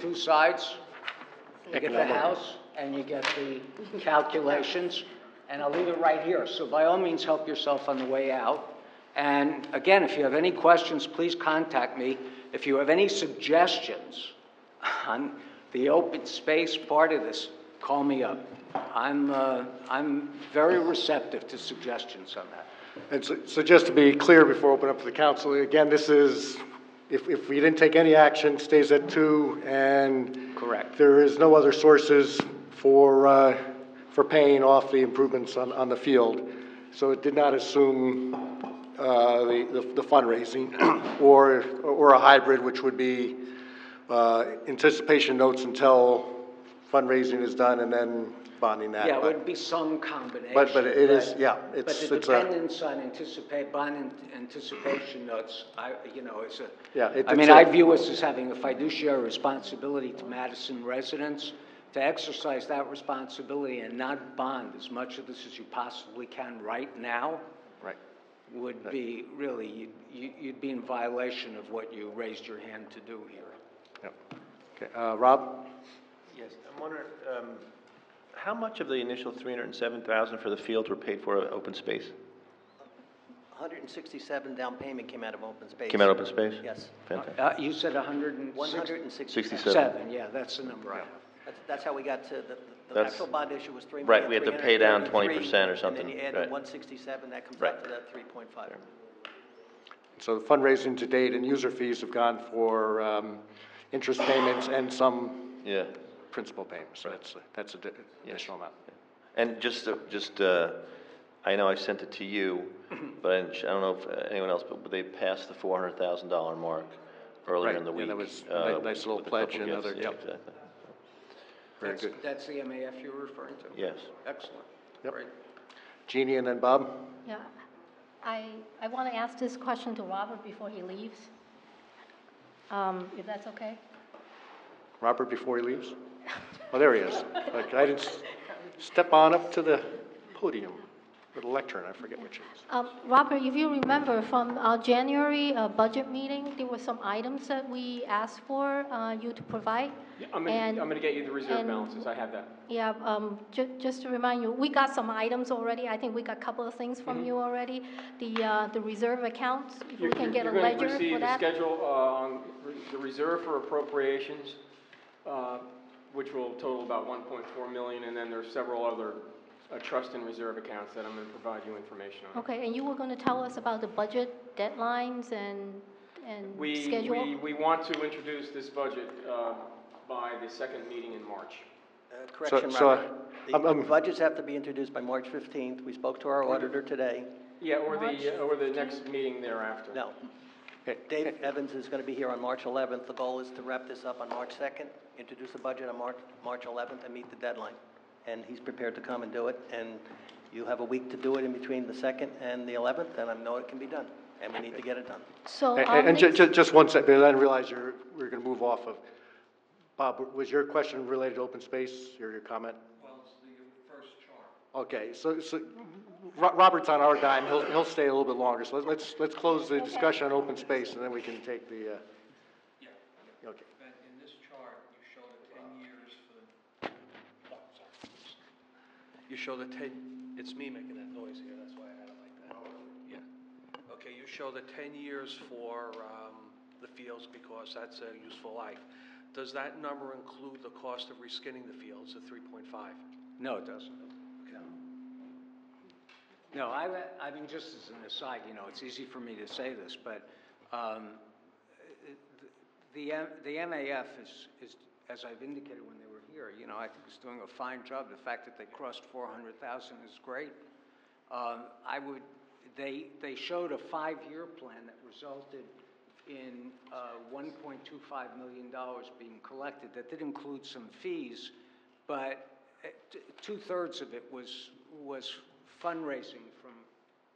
two sides. You get the house and you get the calculations, and I'll leave it right here. So by all means, help yourself on the way out. And again, if you have any questions, please contact me. If you have any suggestions on the open space part of this, call me up. I'm, uh, I'm very receptive to suggestions on that. And so, so just to be clear before I open up to the council, again, this is, if, if we didn't take any action, stays at two and. Correct. There is no other sources for, uh, for paying off the improvements on, on the field. So it did not assume, uh, the, the fundraising or, or a hybrid, which would be, uh, anticipation notes until fundraising is done and then bonding that. Yeah, it But- would be some combination. But- but it is- but- yeah, But it's- the it's a- dependence on anticipate, bond an- anticipation notes, I, you know, is a. Yeah, it- I mean, it's a- I view us as having a fiduciary responsibility to Madison residents, to exercise that responsibility and not bond as much of this as you possibly can right now Right. would be really, you'd- you, you'd be in violation of what you raised your hand to do here. Yep. Okay, uh, Rob? Yes, I'm wondering, um, how much of the initial three hundred and seven thousand for the fields were paid for at open space? 167 down payment came out of open space. Came out of open space? Yes. Fantastic. Uh, you said a hundred and sixty? 167. Seven, yeah, that's the number I have. That's- That's how we got to, the- the That's- actual bond issue was 3 Right, we had to pay down 20% or And something, then you add right. 167, that comes Right. out to that 3.5. So the fundraising to date and user fees have gone for um, interest payments and some Yeah. principal payments. So That's, that's an additional amount. And just, uh, just, uh, I know I sent it to you, but I didn't- I don't know if uh, anyone else, but they passed the four hundred thousand dollar mark earlier Right, in the yeah, week. that was a uh, ni- nice little with a couple pledge and gifts. other- Yeah, yep. Exactly. Very That's- good. That's the MAF you're referring to? Yes. Excellent. Yep. Great. Jeannie and then Bob? Yeah, I, I want to ask this question to Robert before he leaves, um, if that's okay? Robert before he leaves? Oh, there he is. Like, I didn't, s- step on up to the podium, or the lectern, I forget which it is. Um, Robert, if you remember from our January uh, budget meeting, there were some items that we asked for uh, you to provide. Yeah, I'm gonna, and- I'm gonna get you the reserve and- balances, I have that. Yeah, um, ju- just to remind you, we got some items already, I think we got a couple of things from you already. The, uh, the reserve accounts, if we Mm-hmm. You're- can get a You're ledger gonna for receive the that. schedule, uh, on re- the reserve for appropriations, uh, which will total about one point four million, and then there's several other, uh, trust and reserve accounts that I'm gonna provide you information on. Okay, and you were going to tell us about the budget deadlines and, and We, schedule? we, we want to introduce this budget, uh, by the second meeting in March. Uh, Correction, so, Robert. The- I'm- I'm- The budgets have to be introduced by March 15th. We spoke to our auditor today. Yeah, or March the, or the next meeting thereafter. No. Okay. Dave Evans is going to be here on March 11th. The goal is to wrap this up on March 2nd, introduce the budget on March, March 11th, and meet the deadline. And he's prepared to come and do it, and you have a week to do it in between the 2nd and the 11th, and I know it can be done, and we need to get it done. So And- on And ju- these, ju- just one second, because I didn't realize you're, we were gonna move off of. Bob, was your question related to open space, or your comment? Well, it's the first chart. Okay, so, so, Ro- Robert's on our dime, he'll, he'll stay a little bit longer, so let's- let's, let's close the discussion on open space, and then we can take the, uh. Okay. But in this chart, you show the ten years for the, oh, sorry. You show the ten, it's me making that noise here, that's why I had it like that. Yeah. Okay, you show the ten years for, um, the fields because that's a useful life. Does that number include the cost of reskinning the fields, the three point five? No, it doesn't. No, I, I mean, just as an aside, you know, it's easy for me to say this, but um, the, M- the MAF is, is, as I've indicated when they were here, you know, I think is doing a fine job. The fact that they crossed 400,000 is great. Um, I would, they, they showed a five-year plan that resulted in uh, $1.25 million being collected. That did include some fees, but uh, t- two-thirds of it was, was fundraising from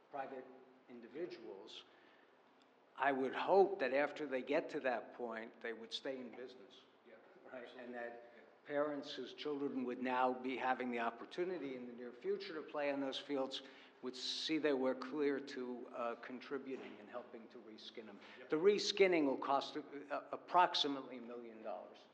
private individuals. I would hope that after they get to that point, they would stay in business. Right, and that parents whose children would now be having the opportunity in the near future to play on those fields would see they were clear to uh, contributing and helping to reskin them. The reskinning will cost uh, approximately a million dollars.